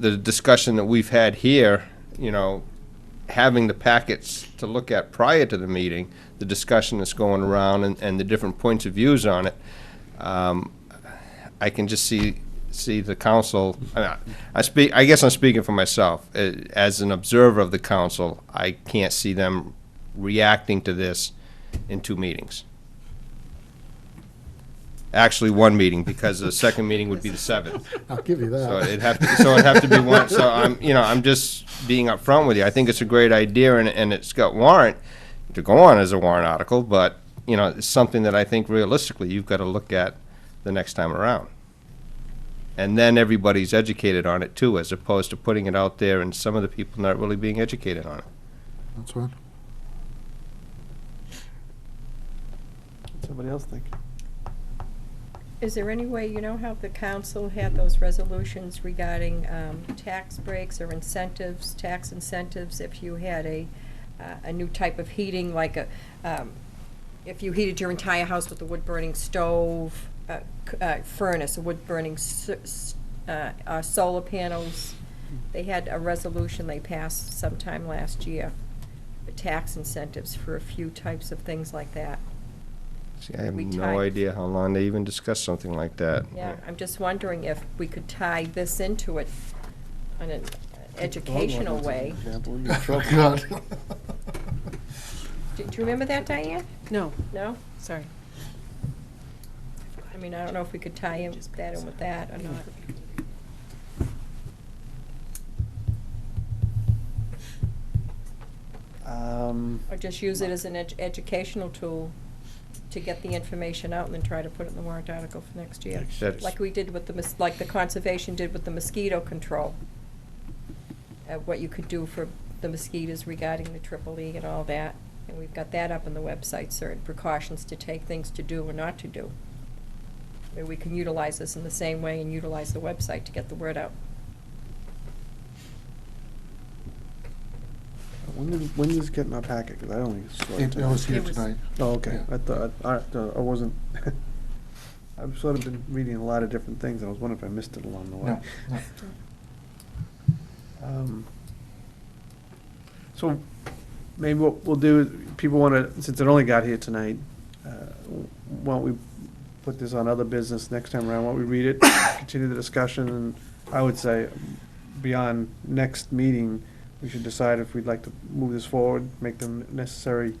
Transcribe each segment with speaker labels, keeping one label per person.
Speaker 1: the discussion that we've had here, you know, having the packets to look at prior to the meeting, the discussion that's going around and, and the different points of views on it, um, I can just see, see the council, I- I speak, I guess I'm speaking for myself. Uh, As an observer of the council, I can't see them reacting to this in two meetings. Actually, one meeting, because the second meeting would be the seventh.
Speaker 2: I'll give you
Speaker 1: So
Speaker 2: that.
Speaker 1: it'd have to, so it'd have to be one, so I'm, you know, I'm just being upfront with you. I think it's a great idea and, and it's got warrant to go on as a warrant article, but, you know, it's something that I think realistically you've got to look at the next time around. And then everybody's educated on it too, as opposed to putting it out there and some of the people not really being educated on it.
Speaker 2: That's fine.
Speaker 3: Somebody else think?
Speaker 4: Is there any way, you know how the council had those resolutions regarding um, tax breaks or incentives, tax incentives, if you had a, uh, a new type of heating, like a, um, if you heated your entire house with a wood-burning stove, uh, c- uh, furnace, a wood-burning s- s- uh, uh, solar panels? They had a resolution they passed sometime last year, for tax incentives for a few types of things like that.
Speaker 1: See, I have
Speaker 4: We
Speaker 1: no
Speaker 4: tied-
Speaker 1: idea how long they even discussed something like that.
Speaker 4: Yeah, I'm just wondering if we could tie this into it in an educational way.
Speaker 3: Example, you're in trouble.
Speaker 2: God.
Speaker 4: Do do you remember that, Diane?
Speaker 5: No,
Speaker 4: No?
Speaker 5: sorry.
Speaker 4: I mean, I don't know if we could tie in that in with that or not.
Speaker 3: Um,
Speaker 4: Or just use it as an ed- educational tool to get the information out and then try to put it in the warrant article for next year.
Speaker 1: That's-
Speaker 4: Like we did with the, mos- like the conservation did with the mosquito control. Uh, What you could do for the mosquitoes regarding the triple E and all that. And we've got that up on the website, certain precautions to take, things to do and not to do. Maybe we can utilize this in the same way and utilize the website to get the word out.
Speaker 3: when did, when did this get in our packet? Because I don't think it's.
Speaker 2: It it was here
Speaker 5: It was-
Speaker 2: tonight.
Speaker 3: Oh, okay.
Speaker 2: Yeah.
Speaker 3: I thought, I, I wasn't, I've sort of been reading a lot of different things, and I was wondering if I missed it along the way.
Speaker 2: No, no.
Speaker 3: Um, So maybe what we'll do, is people want to, since it only got here tonight, uh, why don't we put this on other business next time around? Why don't we read it, continue the discussion, and I would say beyond next meeting, we should decide if we'd like to move this forward, make them necessary,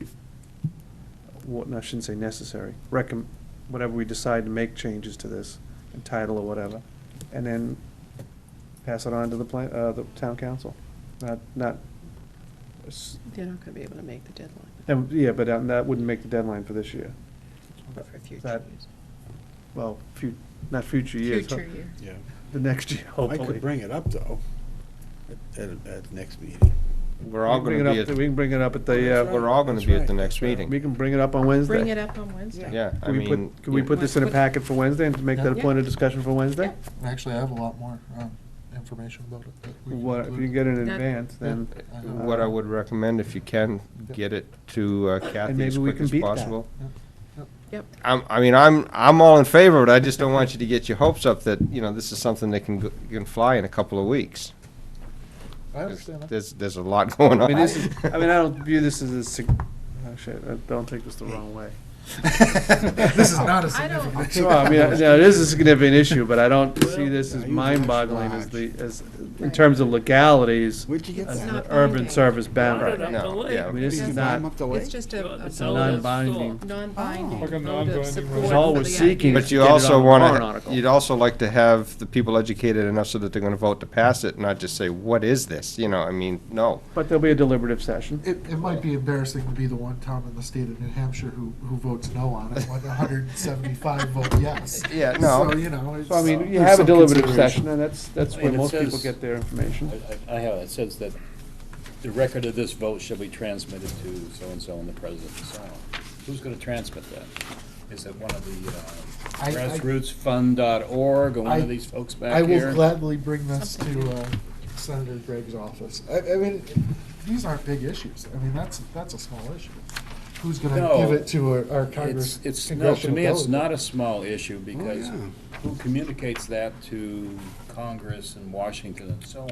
Speaker 3: what, no, I shouldn't say necessary, recommend, whatever we decide to make changes to this, and title or whatever, and then pass it on to the plan, uh, the town council. Not, not, s-
Speaker 5: They're not gonna be able to make the deadline
Speaker 3: and, yeah, but uh, that wouldn't make the deadline for this year.
Speaker 5: for future
Speaker 3: That-
Speaker 5: years.
Speaker 3: Well, fu- not future years, huh?
Speaker 5: Future year.
Speaker 6: Yeah,
Speaker 3: the next year,
Speaker 6: I could
Speaker 3: hopefully.
Speaker 6: bring it up, though, at, at, at the next meeting.
Speaker 1: We're all
Speaker 3: Bring
Speaker 1: gonna
Speaker 3: it
Speaker 1: be,
Speaker 3: up,
Speaker 1: at-
Speaker 3: we can bring it up at the,
Speaker 6: That's
Speaker 3: uh,
Speaker 1: we're all gonna
Speaker 6: That's
Speaker 1: be at
Speaker 6: right,
Speaker 1: the
Speaker 6: that's
Speaker 1: next
Speaker 6: right.
Speaker 1: meeting.
Speaker 3: we can bring it up on Wednesday.
Speaker 5: Bring it up on Wednesday.
Speaker 1: Yeah, I
Speaker 3: Can we
Speaker 1: mean.
Speaker 3: put, can we
Speaker 1: yeah.
Speaker 3: put this in a packet for Wednesday and make that a
Speaker 5: Yeah.
Speaker 3: point of discussion for Wednesday?
Speaker 2: Actually, I have a lot more um, information about it. that we can
Speaker 3: What, if you
Speaker 2: include.
Speaker 3: can get it in
Speaker 5: That-
Speaker 3: advance, then, uh,
Speaker 2: I know.
Speaker 1: What I would recommend, if you can, get it to uh, Kathy
Speaker 3: maybe
Speaker 1: as
Speaker 3: we
Speaker 1: quick
Speaker 3: can
Speaker 1: as
Speaker 3: beat that.
Speaker 1: possible.
Speaker 5: Yep,
Speaker 1: I'm, I mean, I'm, I'm all in favor of it, I just don't want you to get your hopes up that, you know, this is something that can, go- can fly in a couple of weeks.
Speaker 2: I
Speaker 1: There's,
Speaker 2: understand that.
Speaker 1: there's- there's a lot going
Speaker 3: I
Speaker 1: on.
Speaker 3: mean, this is, I mean, I don't view this as a sig, oh shit, I don't take this the wrong way.
Speaker 2: This is not a
Speaker 5: I
Speaker 2: significant.
Speaker 5: don't-
Speaker 3: Oh. Well, I mean, I- yeah, it is a significant issue, but I don't see this as
Speaker 6: Yeah, you
Speaker 3: mind-boggling as
Speaker 6: watch.
Speaker 3: the, as, in terms of legalities,
Speaker 6: Where'd you get
Speaker 3: as
Speaker 5: It's
Speaker 6: that?
Speaker 3: the
Speaker 5: not
Speaker 3: urban
Speaker 5: binding.
Speaker 3: service
Speaker 7: Right,
Speaker 3: boundary.
Speaker 7: up
Speaker 1: No,
Speaker 7: the lake.
Speaker 1: yeah.
Speaker 3: I mean, this
Speaker 6: Did
Speaker 3: is
Speaker 6: you
Speaker 3: not,
Speaker 6: climb up the
Speaker 5: it's
Speaker 6: lake?
Speaker 5: just a- a
Speaker 7: It's
Speaker 5: vote of-
Speaker 3: Oh, non-binding.
Speaker 5: non-binding
Speaker 7: Like a
Speaker 5: vote of
Speaker 7: non-binding
Speaker 5: support
Speaker 7: resolution.
Speaker 5: for
Speaker 3: All
Speaker 5: the
Speaker 3: we're seeking
Speaker 5: idea.
Speaker 3: is
Speaker 1: But you
Speaker 3: get it
Speaker 1: also
Speaker 3: on a warrant
Speaker 1: wanna,
Speaker 3: article.
Speaker 1: you'd also like to have the people educated enough so that they're gonna vote to pass it, not just say, what is this? You know, I mean, no.
Speaker 3: But there'll be a deliberative session.
Speaker 2: It, it might be embarrassing to be the one town in the state of New Hampshire who, who votes no on it, when 175 vote yes.
Speaker 1: Yeah, no.
Speaker 2: So, you know, it's. uh,
Speaker 3: So I mean, you
Speaker 2: there's
Speaker 3: have a
Speaker 2: some
Speaker 3: deliberative
Speaker 2: consideration.
Speaker 3: session, and that's, that's where
Speaker 7: And it
Speaker 3: most people
Speaker 7: says-
Speaker 3: get their information.
Speaker 8: I- I I have, it It says that the record of this vote shall be transmitted to so-and-so and the president and so on. Who's gonna transmit that? Is it one of the
Speaker 2: I- I-
Speaker 8: uh, grassrootsfund.org or one
Speaker 2: I-
Speaker 8: of these folks
Speaker 2: I
Speaker 8: back
Speaker 2: will
Speaker 8: here?
Speaker 2: gladly bring this to uh, Senator Gregg's office. I, I mean, these aren't big issues. I mean, that's, that's a small issue. Who's gonna
Speaker 8: No.
Speaker 2: give it to our- our Congress?
Speaker 8: It's, it's, no, to me, it's
Speaker 2: congressional
Speaker 8: not
Speaker 2: delegate? Oh,
Speaker 8: a small issue because
Speaker 6: yeah.
Speaker 8: who communicates that to Congress and Washington and so on?